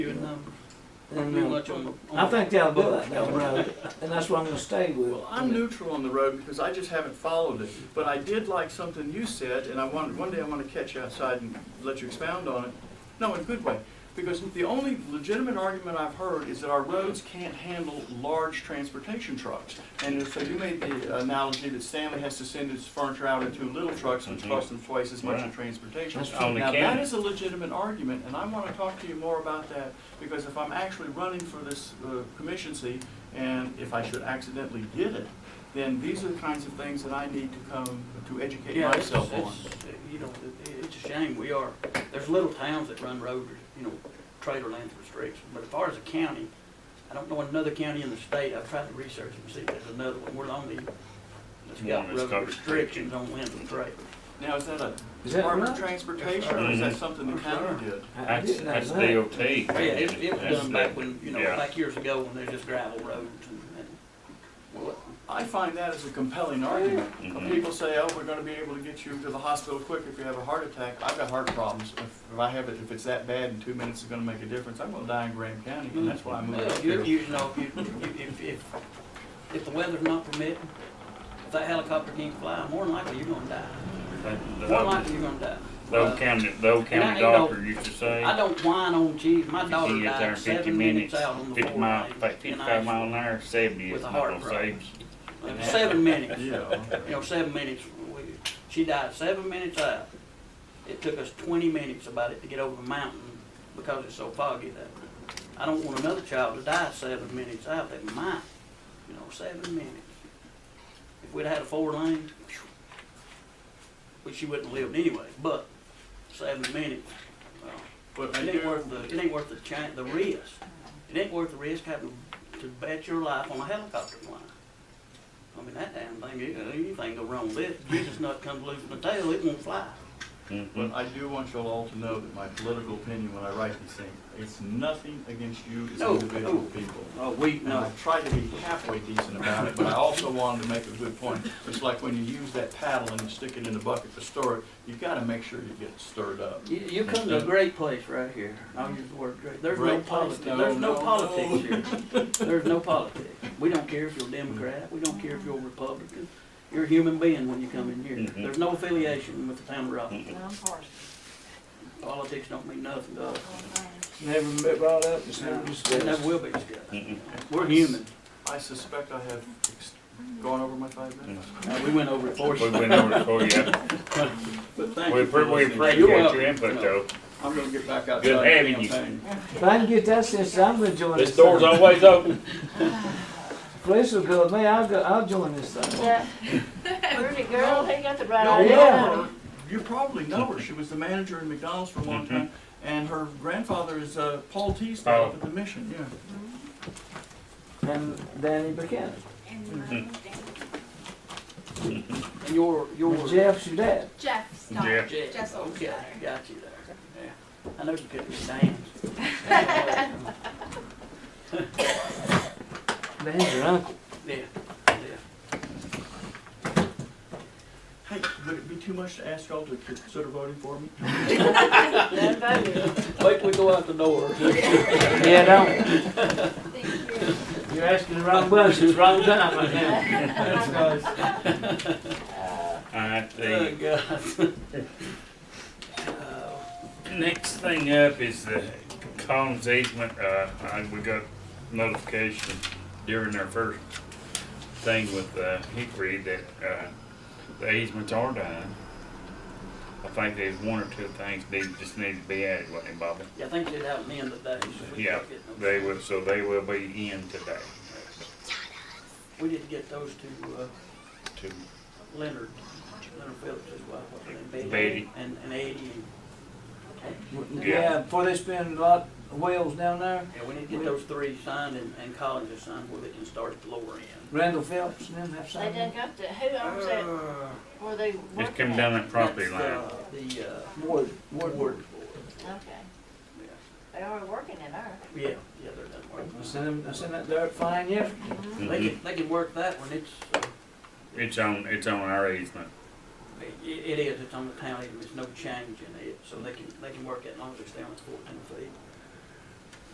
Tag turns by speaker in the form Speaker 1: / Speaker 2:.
Speaker 1: and,
Speaker 2: do
Speaker 1: uh,
Speaker 2: much on, on.
Speaker 1: I think they'll do it down the road, and that's what I'm gonna stay with.
Speaker 2: Well, I'm neutral on the road because I just haven't followed it, but I did like something you said, and I want, one day I want to catch you outside and let you expound on it. No, in a good way, because the only legitimate argument I've heard is that our roads can't handle large transportation trucks. And so you made the analogy that Stanley has to send his furniture out in two little trucks, which
Speaker 3: Mhm.
Speaker 2: costs him twice as much in
Speaker 3: Right.
Speaker 2: transportation.
Speaker 1: That's
Speaker 3: Only
Speaker 2: Now, that
Speaker 3: county.
Speaker 2: is a legitimate argument, and I want to talk to you more about that, because if I'm actually running for this uh, commission seat, and if I should accidentally get it, then these are the kinds of things that I need to come to educate
Speaker 4: Yeah, it's,
Speaker 2: myself on.
Speaker 4: it's, you know, it- it's a shame, we are, there's little towns that run road, you know, trailer lands restrictions, but as far as a county, I don't know another county in the state, I've tried to research and see if there's another one, we're the only, that's
Speaker 3: One
Speaker 4: got
Speaker 3: that's got
Speaker 4: road restrictions on land and trailers.
Speaker 2: Now, is that a
Speaker 1: Is that
Speaker 2: Department of
Speaker 1: right?
Speaker 2: Transportation, or is that
Speaker 3: Mhm.
Speaker 2: something the county did?
Speaker 1: I- I
Speaker 3: That's,
Speaker 1: didn't know
Speaker 3: that's
Speaker 1: that.
Speaker 3: DOT.
Speaker 4: Oh, Yeah, it, it was
Speaker 3: That's
Speaker 4: done back
Speaker 3: the-
Speaker 4: when, you know,
Speaker 3: yeah.
Speaker 4: back years ago when there's just gravel roads and, and, well,
Speaker 2: I find that as a compelling argument. When
Speaker 3: Mhm.
Speaker 2: people say, oh, we're gonna be able to get you to the hospital quick if you have a heart attack, I've got heart problems. If if I have it, if it's that bad, in two minutes is gonna make a difference, I'm gonna die in Graham County, and that's why I moved
Speaker 4: Well,
Speaker 2: up
Speaker 4: you're,
Speaker 2: here.
Speaker 4: you know, if, you- if, if, if, if the weather's not permitting, if that helicopter can't fly, more than likely you're gonna die.
Speaker 3: The-
Speaker 4: More than
Speaker 3: the-
Speaker 4: likely you're gonna die.
Speaker 3: The
Speaker 4: Uh,
Speaker 3: old county, the old
Speaker 4: I-
Speaker 3: county
Speaker 4: you know,
Speaker 3: doctor used to say,
Speaker 4: I don't whine on cheese. My
Speaker 3: you
Speaker 4: daughter
Speaker 3: can get there in
Speaker 4: died
Speaker 3: fifty
Speaker 4: seven minutes
Speaker 3: minutes,
Speaker 4: out on the
Speaker 3: fifty
Speaker 4: four
Speaker 3: mile,
Speaker 4: lane
Speaker 3: like
Speaker 4: in
Speaker 3: fifty-five mile
Speaker 4: Asheville.
Speaker 3: an hour, seventy
Speaker 4: with
Speaker 3: is
Speaker 4: a
Speaker 3: not
Speaker 4: heart
Speaker 3: gonna
Speaker 4: problem.
Speaker 3: save you.
Speaker 4: It was Uh, Seven minutes, you
Speaker 2: Yeah.
Speaker 4: know, seven minutes. We- She died seven minutes out. It took us twenty minutes about it to get over the mountain because it's so foggy that. I don't want another child to die seven minutes out. They might, you know, seven minutes. If we'd had a four lane, phew, which she wouldn't have lived anyway, but seven minutes, well,
Speaker 2: But I
Speaker 4: it ain't
Speaker 2: do,
Speaker 4: worth the, it ain't worth the chan the risk. It ain't worth the risk having to bet your life on a helicopter flying. I mean, that damn thing, you- anything go wrong with it, Jesus nut comes loose from the tail, it won't fly.
Speaker 2: but I do want you all to know that my political opinion when I write these things, it's nothing against you as
Speaker 4: No,
Speaker 2: individual
Speaker 4: no.
Speaker 2: people.
Speaker 4: Oh, we,
Speaker 2: And I
Speaker 4: no.
Speaker 2: tried to be halfway decent about it, but I also wanted to make a good point. It's like when you use that paddle and you stick it in the bucket to stir it, you gotta make sure you get stirred up.
Speaker 4: You, you come to a great place right here. I'll use the word great. There's no
Speaker 2: Great place?
Speaker 4: politics,
Speaker 2: No,
Speaker 4: there's no
Speaker 2: no, no.
Speaker 4: politics here. There's no politics. We don't care if you're Democrat, we don't care if you're Republican. You're a human being when you come in here.
Speaker 3: Mhm.
Speaker 4: There's no affiliation with the town of Rockland.
Speaker 3: Mhm.
Speaker 4: Politics don't mean nothing to us.
Speaker 1: It's Never been brought up, it's never
Speaker 4: It never
Speaker 1: discussed.
Speaker 4: will be discussed.
Speaker 3: Mhm.
Speaker 4: We're human.
Speaker 2: I suspect I have ex- gone over my five minutes.
Speaker 4: Uh, We went over it for
Speaker 3: Mm-hmm. We
Speaker 4: you.
Speaker 3: went over it for you.
Speaker 2: But thank
Speaker 3: We
Speaker 2: you for
Speaker 3: appre- we
Speaker 2: listening.
Speaker 3: appreciate
Speaker 4: You're welcome.
Speaker 3: your input though.
Speaker 2: I'm gonna get back outside. and
Speaker 3: having you.
Speaker 2: campaign.
Speaker 1: If I can get that since I'm gonna join this
Speaker 3: This door's
Speaker 1: thing.
Speaker 3: always open.
Speaker 1: Police will go with me, I'll go, I'll join this thing.
Speaker 5: Yeah. Rudy girl, he got the right
Speaker 2: Y'all
Speaker 5: idea.
Speaker 2: know her. You probably know her. She was the manager in McDonald's for a long time, and her grandfather is uh, Paul Teasdale up
Speaker 3: Oh.
Speaker 2: at the Mission, yeah.
Speaker 1: And Danny Buchanan,
Speaker 4: And your, your.
Speaker 1: and Jeff's your dad.
Speaker 6: Jeff's
Speaker 3: Yeah.
Speaker 6: daughter.
Speaker 4: Jeff,
Speaker 6: Jeff's older
Speaker 4: okay,
Speaker 6: daughter.
Speaker 4: got you there. Yeah. I know you couldn't be dance.
Speaker 1: Danny's your uncle.
Speaker 4: Yeah,
Speaker 2: Hey, would it be too much to ask y'all to consider voting for me?
Speaker 5: That voted.
Speaker 4: yeah. Wait till we go out the door.
Speaker 1: Yeah, don't,
Speaker 6: Thank you.
Speaker 1: you're asking the wrong questions, wrong time right now.
Speaker 3: I
Speaker 4: Oh,
Speaker 3: think,
Speaker 4: God.
Speaker 3: next thing up is the Collins easement, uh, I- we got notification during our first thing with, uh, Hickory that, uh, the easements are done. I think there's one or two things they just need to be added, wasn't it, Bobby?
Speaker 4: Yeah, I think it happened in the day. so we
Speaker 3: Yeah,
Speaker 4: didn't get no-
Speaker 3: they will, so they will be in today
Speaker 4: We didn't get those to, uh,
Speaker 3: to
Speaker 4: Leonard, Leonard Phillips' wife, what's her name?
Speaker 3: Betty.
Speaker 4: And, and Eddie. and-
Speaker 1: Yeah, before they spend a lot of wheels down there,
Speaker 4: Yeah, we need to get those three signed and, and Collins is signed where they can start at the lower end.
Speaker 1: Randall Phelps and them have
Speaker 5: They done
Speaker 1: something.
Speaker 5: got the, who owns that,
Speaker 4: Uh,
Speaker 5: where they
Speaker 3: Just
Speaker 5: working
Speaker 3: come
Speaker 5: at?
Speaker 3: down that property
Speaker 4: that's,
Speaker 3: line.
Speaker 4: uh, The, uh,
Speaker 1: Ward,
Speaker 4: Ward Board.
Speaker 1: Ward, Ward.
Speaker 5: Okay, they are working at her.
Speaker 4: Yeah, yeah, they're done
Speaker 1: I
Speaker 4: working.
Speaker 1: sent him, I sent that dirt fine yesterday.
Speaker 4: They
Speaker 3: Mhm.
Speaker 4: can, they can work that one, it's, uh,
Speaker 3: It's on, it's on our easement.
Speaker 4: it, it is, it's on the town, even, there's no change in it, so they can, they can work that as long as they stay on the fourteen feet.